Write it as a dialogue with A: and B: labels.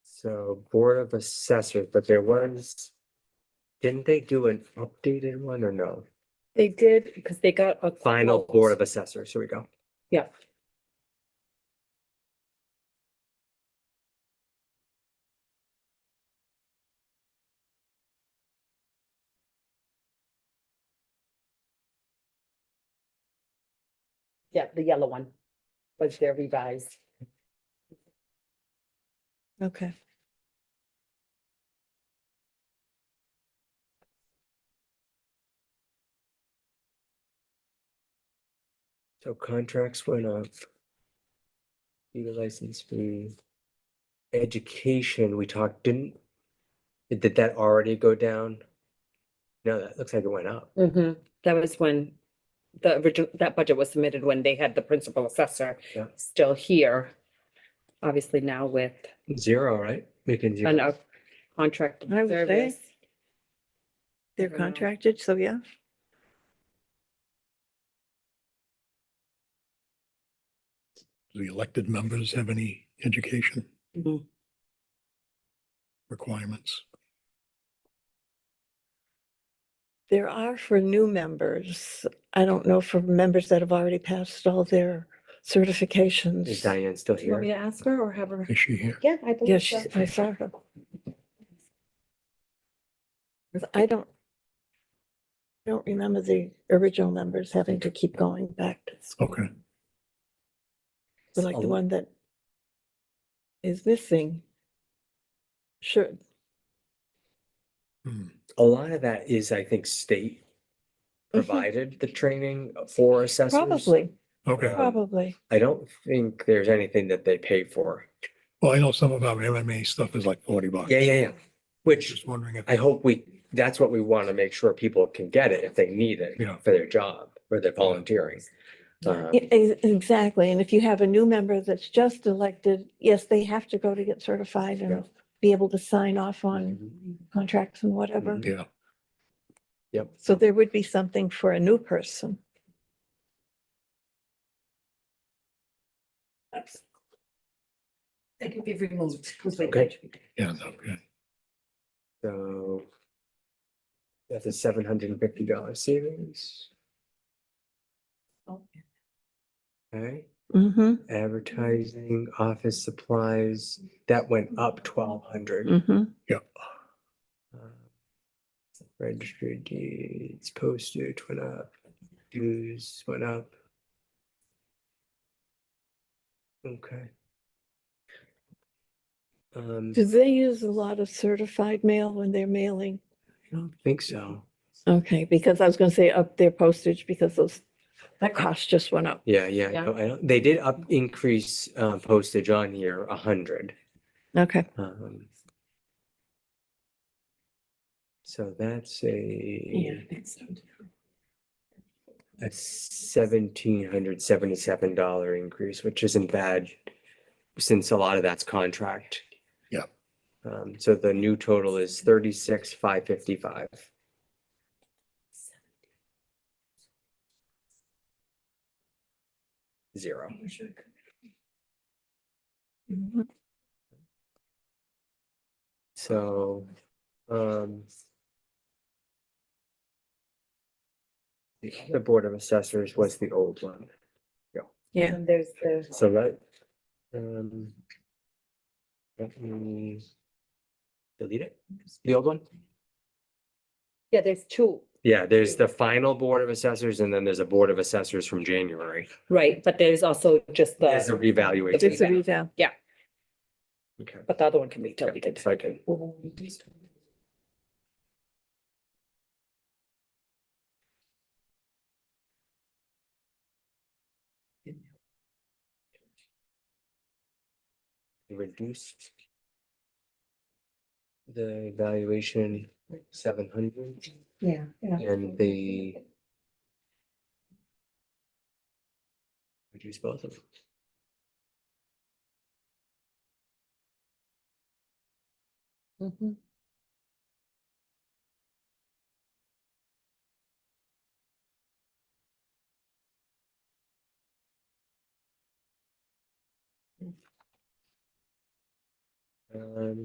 A: So Board of Assessors, but there was, didn't they do an updated one or no?
B: They did, because they got a.
A: Final
B: quote.
A: Board of Assessors, here we go.
B: Yeah. Yeah, the yellow one was their revised.
C: Okay.
A: So contracts went up. Legal license fee. Education, we talked, didn't, did that already go down? No, that looks like it went up.
B: Mm-hmm, that was when the original, that budget was submitted when they had the principal assessor
A: Yeah.
B: still here. Obviously now with
A: Zero, right? We can zero.
B: an uh, contract
C: I would say.
B: service.
C: They're
B: don't know.
C: contracted, so yeah.
D: Do the elected members have any education
A: Mm-hmm.
B: Mhm.
D: requirements?
C: There are for new members. I don't know for members that have already passed all their
A: Is
C: certifications.
A: Diane still
B: Do you want me
A: here?
B: to ask her or have her?
D: Is she here?
B: Yeah, I believe
C: Yes,
B: so.
C: I saw her. I don't, I don't remember the original members having to keep going back to school.
A: Mm-hmm.
D: Okay,
C: But Like
A: Oh.
C: the one that is missing. Sure,
D: Hmm.
A: A lot of that is, I think, state provided the training for assessors.
C: probably,
D: okay.
A: Uh,
C: probably.
A: I don't think there's anything that they pay for.
D: Well, I know some of our MMA stuff is like forty bucks.
A: Yeah, yeah, yeah. Which
D: Just wondering if,
A: I hope we, that's what we want to make sure people can get it if they need it
D: Yeah.
A: for their job or their volunteering. Um,
C: Yeah, ex- Exactly, and if you have a new member that's just elected, yes, they have to go to get certified
A: Yeah.
C: and be able to sign off on
A: mhm.
C: contracts and whatever.
A: Mhm.
D: yeah,
A: Yep.
C: So there would be something for a new person.
E: They can be removed
A: Okay.
E: completely.
D: yeah, okay.
A: So that's a seven hundred and fifty dollar savings.
E: Oh.
A: Okay,
C: Mm-hmm,
A: advertising, office supplies, that went up twelve hundred.
C: mm-hmm.
A: Registered Um, deeds, postage went up, dues went up. Okay. Um,
C: Do they use a lot of certified mail when they're mailing?
A: I don't think so.
C: Okay, because I was gonna say up their postage, because those, that cost just went up.
A: Yeah, yeah,
B: Yeah.
A: no, I don't, they did up, increase, uh, postage on here a hundred.
C: Okay.
A: Um. So that's a, a seventeen hundred seventy-seven dollar increase, which isn't bad. Since a lot of that's contract.
D: Yeah.
A: Um, so the new total is thirty-six, five fifty-five. Zero. So, um. The other Board of Assessors was the old one,
C: Yeah.
B: And there's the.
A: so that, um. Let me. Delete it, the old one?
B: Yeah, there's two,
A: Yeah, there's the final Board of Assessors and then there's a Board of Assessors from January.
B: right, but there's also just
A: There's a
B: the,
A: revaluation.
C: It's a reval.
A: Okay.
B: but the other one can be
A: Okay,
B: deleted.
A: so I can- reduced the valuation seven hundred
E: Yeah.
A: and the reduce both of them.
B: Mhm.
A: Um,